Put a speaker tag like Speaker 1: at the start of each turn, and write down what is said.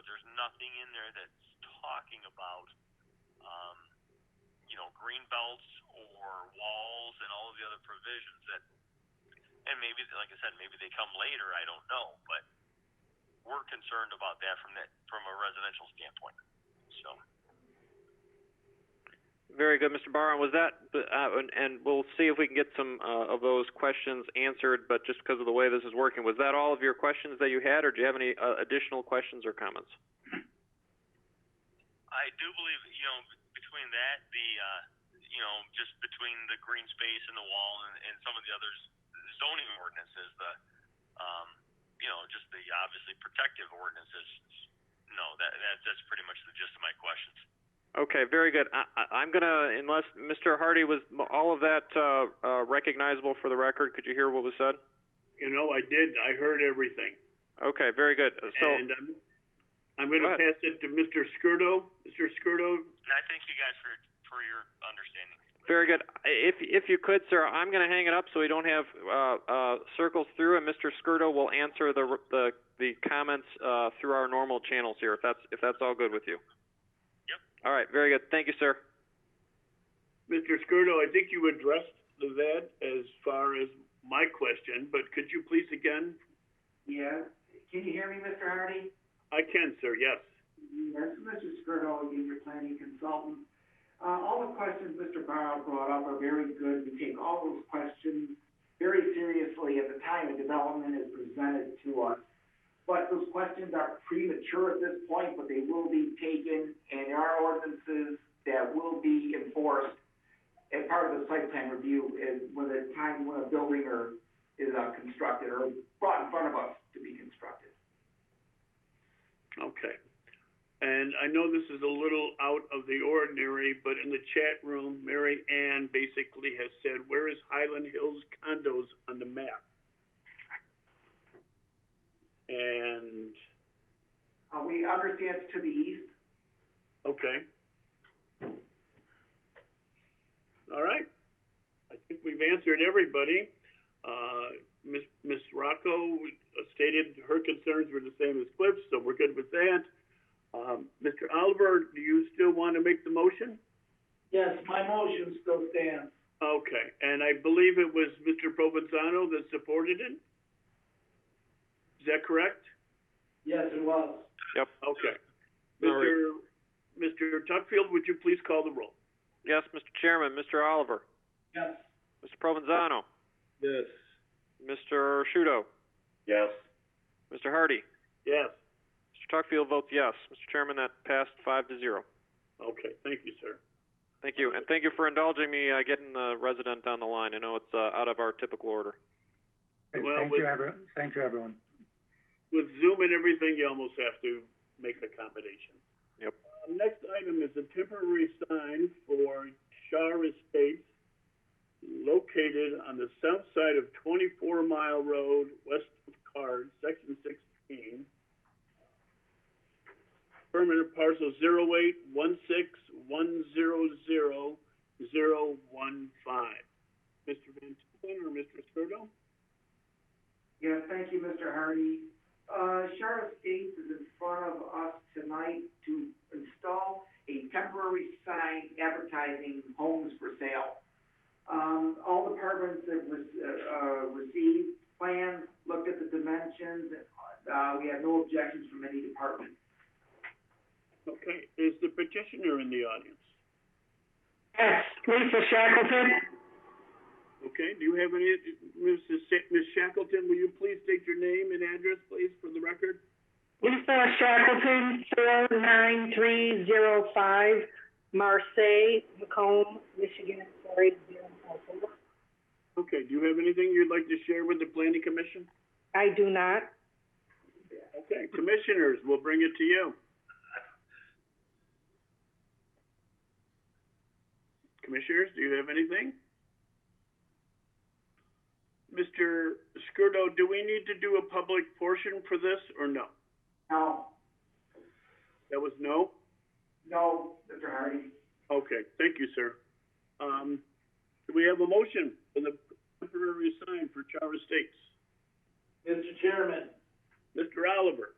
Speaker 1: nothing in there that's talking about, um, you know, green belts or walls and all of the other provisions that, and maybe, like I said, maybe they come later. I don't know, but we're concerned about that from that from a residential standpoint. So
Speaker 2: Very good, Mr. Barr. And was that, uh, and- and we'll see if we can get some uh, of those questions answered, but just because of the way this is working, was that all of your questions that you had, or do you have any uh, additional questions or comments?
Speaker 1: I do believe, you know, between that, the, uh, you know, just between the green space and the wall and, and some of the other zoning ordinances, the, um, you know, just the obviously protective ordinances. No, that, that that's pretty much the gist of my questions.
Speaker 2: Okay, very good. I, I, I'm going to, unless Mr. Hardy was all of that uh, uh, recognizable for the record, could you hear what was said?
Speaker 3: You know, I did. I heard everything.
Speaker 2: Okay, very good. So,
Speaker 3: and I'm, I'm going
Speaker 2: Go
Speaker 3: to
Speaker 2: ahead.
Speaker 3: pass it to Mr. Skirdo. Mr. Skirdo,
Speaker 1: And I thank you guys for for your understanding.
Speaker 2: Very good. If if you could, sir, I'm going to hang it up so we don't have uh, uh, circles through, and Mr. Skirdo will answer the the, the comments uh, through our normal channels here. If that's if that's all good with you.
Speaker 1: Yep.
Speaker 2: All right. Very good. Thank you, sir.
Speaker 3: Mr. Skirdo, I think you addressed that as far as my question, but could you please again?
Speaker 4: Yeah, can you hear me, Mr. Hardy?
Speaker 3: I can, sir. Yes.
Speaker 4: Yes, Mr. Skirdo, again, your planning consultant. Uh, all the questions Mr. Barrow brought up are very good. We take all those questions very seriously at the time a development is presented to us. But those questions are premature at this point, but they will be taken in our ordinances that will be enforced as part of the site plan review is when the time when a building or is uh, constructed or brought in front of us to be constructed.
Speaker 3: Okay. And I know this is a little out of the ordinary, but in the chat room, Mary Ann basically has said, "Where is Highland Hills condos on the map?" And
Speaker 4: Uh, we understand it's to the east.
Speaker 3: Okay. All right. I think we've answered everybody. Uh, Ms. Ms. Rocco stated her concerns were the same as Cliff's, so we're good with that. Um, Mr. Oliver, do you still want to make the motion?
Speaker 4: Yes, my motion still stands.
Speaker 3: Okay, and I believe it was Mr. Provenzano that supported it? Is that correct?
Speaker 4: Yes, it was.
Speaker 3: Okay.
Speaker 2: Sorry.
Speaker 3: Mr. Mr. Tuckfield, would you please call the roll?
Speaker 2: Yes, Mr. Chairman, Mr. Oliver,
Speaker 4: Yes.
Speaker 2: Mr. Provenzano,
Speaker 3: Yes.
Speaker 2: Mr. Shudo,
Speaker 3: Yes.
Speaker 2: Mr. Hardy,
Speaker 3: Yes.
Speaker 2: Mr. Tuckfield votes yes. Mr. Chairman, that passed five to zero.
Speaker 3: Okay, thank you, sir.
Speaker 2: Thank you, and thank you for indulging me uh, getting the resident on the line. I know it's uh, out of our typical order.
Speaker 5: Great.
Speaker 3: Well,
Speaker 5: Thank
Speaker 3: with-
Speaker 5: you, everyone. Thank you, everyone.
Speaker 3: With Zoom and everything, you almost have to make accommodation.
Speaker 2: Yep.
Speaker 3: Uh, Next item is a temporary sign for Shar Estates located on the south side of 24 Mile Road, west of Card, Section 16. Permanent parcel 08161000015. Mr. Van Tulen or Mr. Skirdo?
Speaker 4: Yes, thank you, Mr. Hardy. Uh, Sheriff Gates is in front of us tonight to install a temporary sign advertising homes for sale. Um, all departments have re- uh, uh, received plans, looked at the dimensions, and, uh, we have no objections from any department.
Speaker 3: Okay, is the petitioner in the audience?
Speaker 4: Yes, Lisa Shackleton?
Speaker 3: Okay, do you have any, Mrs. Sa- Ms. Shackleton, will you please state your name and address, please, for the record?
Speaker 6: Lisa Shackleton, four nine three zero five, Marseille, Macomb, Michigan, sorry, zero four four.
Speaker 3: Okay, do you have anything you'd like to share with the planning commission?
Speaker 6: I do not.
Speaker 3: Okay, commissioners, we'll bring it to you. Commissioners, do you have anything? Mr. Skirdo, do we need to do a public portion for this or no?
Speaker 4: No,
Speaker 3: That was no?
Speaker 4: no, Mr. Hardy.
Speaker 3: Okay, thank you, sir. Um, do we have a motion for the temporary sign for Charter Estates?
Speaker 4: Mr. Chairman,
Speaker 3: Mr. Oliver,